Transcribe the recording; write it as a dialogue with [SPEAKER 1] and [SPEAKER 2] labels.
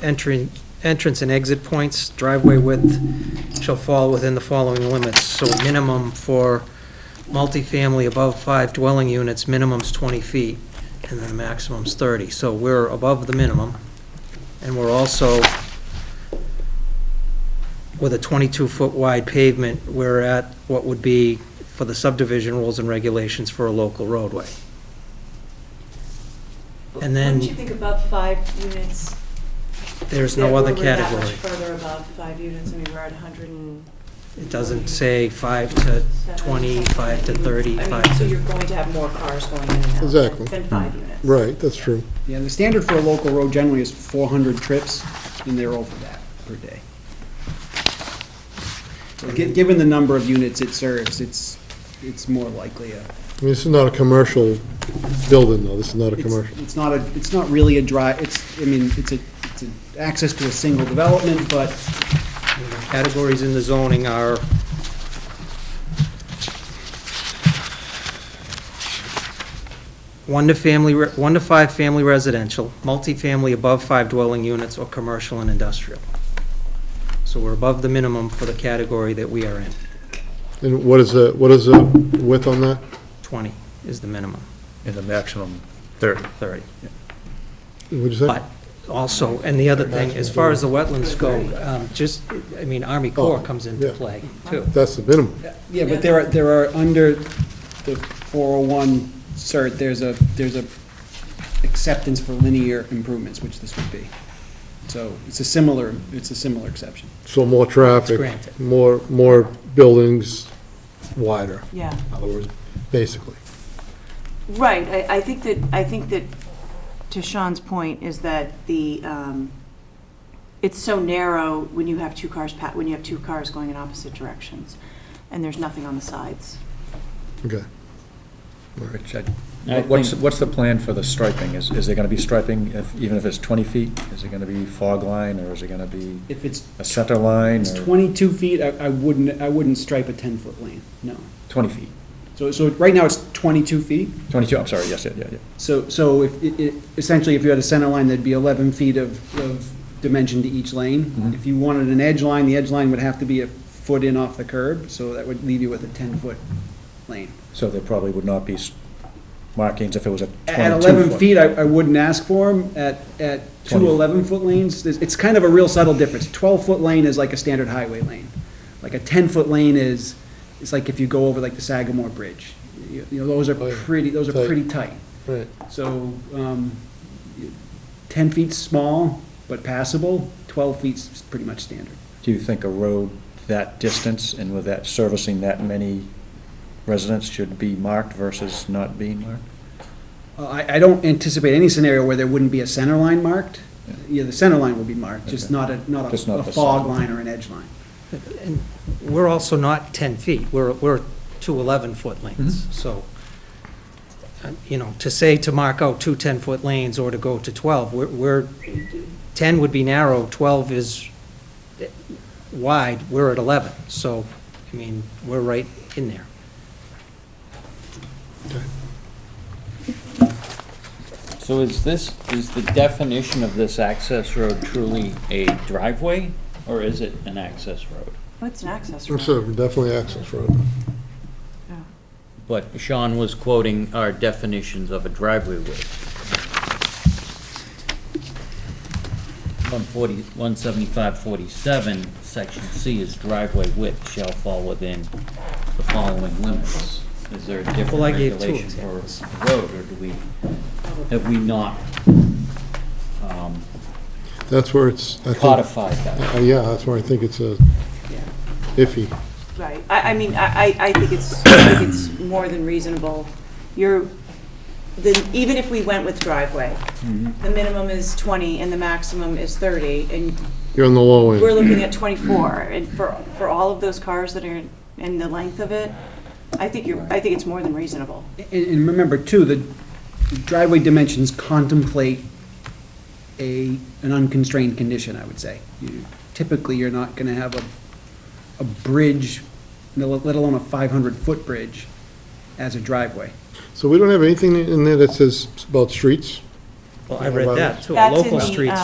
[SPEAKER 1] Entry, entrance and exit points, driveway width shall fall within the following limits. So minimum for multifamily above five dwelling units, minimum's 20 feet, and then the maximum's 30. So we're above the minimum, and we're also, with a 22-foot wide pavement, we're at what would be for the subdivision rules and regulations for a local roadway. And then-
[SPEAKER 2] Wouldn't you think above five units?
[SPEAKER 1] There's no
[SPEAKER 2] that
[SPEAKER 1] other
[SPEAKER 2] we're that much
[SPEAKER 1] category.
[SPEAKER 2] further above five units, I mean, we're at 100 and
[SPEAKER 1] It doesn't say five to
[SPEAKER 2] seven,
[SPEAKER 1] 20,
[SPEAKER 2] something
[SPEAKER 1] five to
[SPEAKER 2] like that.
[SPEAKER 1] 30,
[SPEAKER 2] I mean,
[SPEAKER 1] five Mm.
[SPEAKER 2] so
[SPEAKER 1] to-
[SPEAKER 2] you're going to have more cars going in and out
[SPEAKER 3] Exactly.
[SPEAKER 2] than- than five units.
[SPEAKER 3] Right, that's true.
[SPEAKER 4] Yeah, the standard for a local road generally is 400 trips, and they're over that per day. So gi- Given the number of units it serves, it's, it's more likely a,
[SPEAKER 3] I mean, this is not a commercial building, though, this is not a
[SPEAKER 4] it's
[SPEAKER 3] commercial.
[SPEAKER 4] it's not a, it's not really a dry, it's, I mean, it's a, it's an access to a single development, but
[SPEAKER 1] Categories in the zoning are, one to family, re- one to five family residential, multifamily above five dwelling units, or commercial and industrial. So we're above the minimum for the category that we are in.
[SPEAKER 3] And what is the, what is the width on that?
[SPEAKER 1] 20 is the minimum,
[SPEAKER 5] in the maximum 30.
[SPEAKER 1] 30.
[SPEAKER 3] What'd you say?
[SPEAKER 1] But also, and the other thing, as far as the wetlands go, um, just, I mean, Army Corps comes into
[SPEAKER 3] yeah.
[SPEAKER 1] play, too.
[SPEAKER 3] That's the minimum.
[SPEAKER 4] Yeah, but there are, there are, under the 401 cert, there's a, there's a acceptance for linear improvements, which this would be. So it's a similar, it's a similar exception.
[SPEAKER 3] So more traffic,
[SPEAKER 1] granted.
[SPEAKER 3] more, more buildings wider,
[SPEAKER 2] Yeah,
[SPEAKER 3] in other words, basically.
[SPEAKER 2] right, I, I think that, I think that, to Sean's point, is that the, um, it's so narrow when you have two cars, pa- when you have two cars going in opposite directions, and there's nothing on the sides.
[SPEAKER 3] Okay.
[SPEAKER 5] Which I- What's, what's the plan for the striping? Is, is there going to be striping, if- even if it's 20 feet? Is it going to be fog line, or is it going to be
[SPEAKER 4] If it's,
[SPEAKER 5] a center line?
[SPEAKER 4] it's
[SPEAKER 5] or-
[SPEAKER 4] 22 feet, I, I wouldn't, I wouldn't stripe a 10-foot lane, no.
[SPEAKER 5] 20 feet,
[SPEAKER 4] So, so right now it's 22 feet,
[SPEAKER 5] 22, I'm sorry, yes, yeah, yeah, yeah.
[SPEAKER 4] so, so if, it- it- essentially, if you had a center line, there'd be 11 feet of, of dimension to each lane.
[SPEAKER 5] Mhm.
[SPEAKER 4] If you wanted an edge line, the edge line would have to be a foot in off the curb, so that would leave you with a 10-foot lane.
[SPEAKER 5] So there probably would not be s- markings if it was a 22 foot.
[SPEAKER 4] At 11 feet, I, I wouldn't ask for them. At, at two
[SPEAKER 5] 20.
[SPEAKER 4] 11-foot lanes, there's- it's kind of a real subtle difference. 12-foot lane is like a standard highway lane. Like a 10-foot lane is, it's like if you go over like the Sagamore Bridge. You you know, those are
[SPEAKER 3] Oh, yeah.
[SPEAKER 4] pretty, those are
[SPEAKER 3] Tight.
[SPEAKER 4] pretty tight.
[SPEAKER 3] Right.
[SPEAKER 4] So, um, 10 feet's small, but passable. 12 feet's pretty much standard.
[SPEAKER 5] Do you think a road that distance and with that servicing that many residents should be marked versus not being marked?
[SPEAKER 4] Uh, I, I don't anticipate any scenario where there wouldn't be a center line marked.
[SPEAKER 5] Yeah.
[SPEAKER 4] Yeah, the center line will be marked, just
[SPEAKER 5] Okay.
[SPEAKER 4] not a, not
[SPEAKER 5] Just
[SPEAKER 4] a
[SPEAKER 5] not
[SPEAKER 4] a
[SPEAKER 5] the
[SPEAKER 4] fog
[SPEAKER 5] side.
[SPEAKER 4] line or an edge line.
[SPEAKER 1] And we're also not 10 feet, we're, we're two 11-foot lanes, so, uh, you know, to say to mark out two 10-foot lanes or to go to 12, we're- we're, 10 would be narrow, 12 is wide, we're at 11, so, I mean, we're right in there.
[SPEAKER 6] So is this, is the definition of this access road truly a driveway, or is it an access road?
[SPEAKER 2] Well, It's an access road.
[SPEAKER 3] It's a- definitely access road.
[SPEAKER 2] Yeah.
[SPEAKER 6] But Sean was quoting our definitions of a driveway width. One forty, one seventy-five forty-seven, section C is driveway width shall fall within the following limits. Is there a different
[SPEAKER 1] Well, I gave two
[SPEAKER 6] regulation for
[SPEAKER 1] examples.
[SPEAKER 6] a road, or do we, have we not, um,
[SPEAKER 3] That's where it's, I think.
[SPEAKER 6] codified that?
[SPEAKER 3] Uh, Yeah, that's where I think it's uh,
[SPEAKER 2] Yeah.
[SPEAKER 3] iffy.
[SPEAKER 2] Right, I, I mean, I, I- I think it's, I think it's more than reasonable. You're, the, even if we went with driveway, the minimum is 20 and the maximum is 30, and
[SPEAKER 3] You're on the low
[SPEAKER 2] we're
[SPEAKER 3] end.
[SPEAKER 2] looking at 24, and for, for all of those cars that are in the length of it, I think you're, I think it's more than reasonable.
[SPEAKER 4] And, and remember too, the driveway dimensions contemplate a, an unconstrained condition, I would say. You- Typically, you're not gonna have a, a bridge, no, let alone a five hundred foot bridge as a driveway.
[SPEAKER 3] So we don't have anything in there that says about streets?
[SPEAKER 1] Well, I read that, too.
[SPEAKER 2] That's in
[SPEAKER 1] Local
[SPEAKER 2] the,
[SPEAKER 1] streets